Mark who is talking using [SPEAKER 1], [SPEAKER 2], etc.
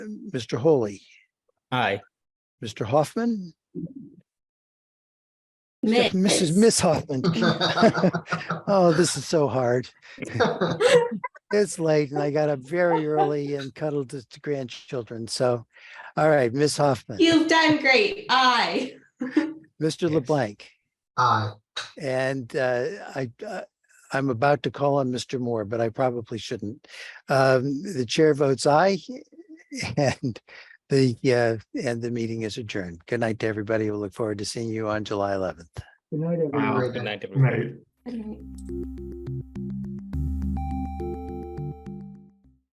[SPEAKER 1] Mr. Holy,
[SPEAKER 2] Aye.
[SPEAKER 1] Mr. Hoffman,
[SPEAKER 3] Miss.
[SPEAKER 1] Mrs. Miss Hoffman. Oh, this is so hard. It's late and I got up very early and cuddled the grandchildren. So, all right, Miss Hoffman,
[SPEAKER 3] You've done great. Aye.
[SPEAKER 1] Mr.
[SPEAKER 2] Yes.
[SPEAKER 1] LeBlanc,
[SPEAKER 4] Aye.
[SPEAKER 1] and uh, I, uh, I'm about to call on Mr. Moore, but I probably shouldn't. Um, The chair votes aye and the, uh, and the meeting is adjourned. Good night to everybody. We look forward to seeing you on July 11th.
[SPEAKER 4] Good night,
[SPEAKER 2] Wow.
[SPEAKER 4] everyone.
[SPEAKER 2] Good night, everybody.
[SPEAKER 3] Good night.